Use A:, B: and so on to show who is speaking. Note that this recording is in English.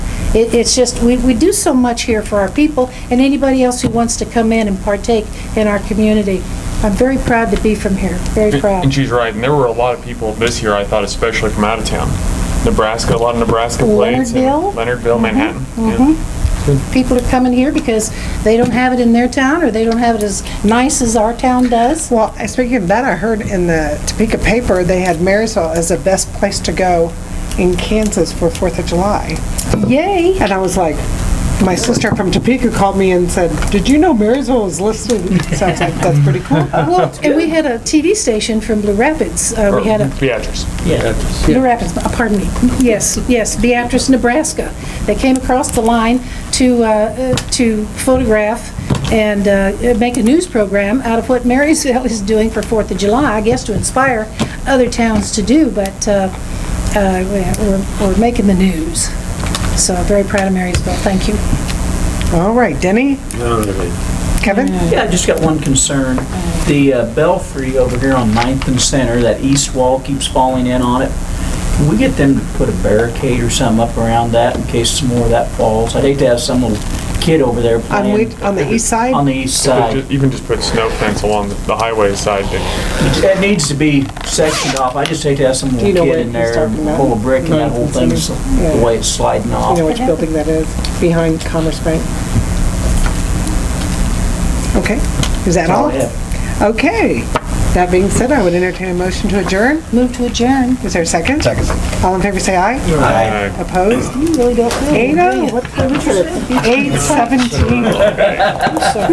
A: It, it's just, we, we do so much here for our people and anybody else who wants to come in and partake in our community. I'm very proud to be from here, very proud.
B: And she's right, and there were a lot of people this year, I thought, especially from out of town. Nebraska, a lot of Nebraska plates. and
A: Leonardville? Mm-hmm.
B: Leonardville, Manhattan. yeah.
A: People are coming here because they don't have it in their town or they don't have it as nice as our town does.
C: Well, and speaking of that, I heard in the Topeka paper, they had Marysville as the best place to go in Kansas for Fourth of July.
A: Yay!
C: And I was like, my sister from Topeka called me and said, did you know Marysville was listed? So I was like, that's pretty cool.
A: Well, and we had a TV station from Blue Rapids. Uh,
B: Or
A: we had a,
B: Beatrice.
A: Blue Rapids, uh, pardon me, yes, yes, Beatrice, Nebraska. They came across the line to, uh, uh, to photograph and uh, make a news program out of what Marysville is doing for Fourth of July, I guess to inspire other towns to do, but uh, uh, we're we're making the news. So very proud of Marysville, thank you.
C: All right, Denny, Kevin?
D: Yeah, I just got one concern. The uh, belfry over here on Ninth and Center, that east wall keeps falling in on it. Can we get them to put a barricade or something up around that in case some more of that falls? I'd hate to have some little kid over there
C: On
D: playing.
C: whi- on the east side?
D: On the east
B: But
D: side.
B: ju- You can just put snow fence along the- the highway side. that-
D: It needs to be sectioned off. I just hate to have some
C: you know
D: little
C: what
D: kid in
C: he's
D: there
C: talking about?
D: pull a brick and that whole
C: Ninth
D: thing,
C: and Center?
D: the
C: Yeah.
D: way it's sliding
C: You
D: off.
C: know which building that is, behind Commerce Bank? Okay, is that
D: That's all
C: all?
D: I have.
C: Okay, that being said, I would entertain a motion to adjourn.
A: Move to adjourn.
C: Is there a second? Second. All in favor, say aye.
B: Uh,
C: Opposed?
A: You really don't know.
C: Eight oh, what, 8:17.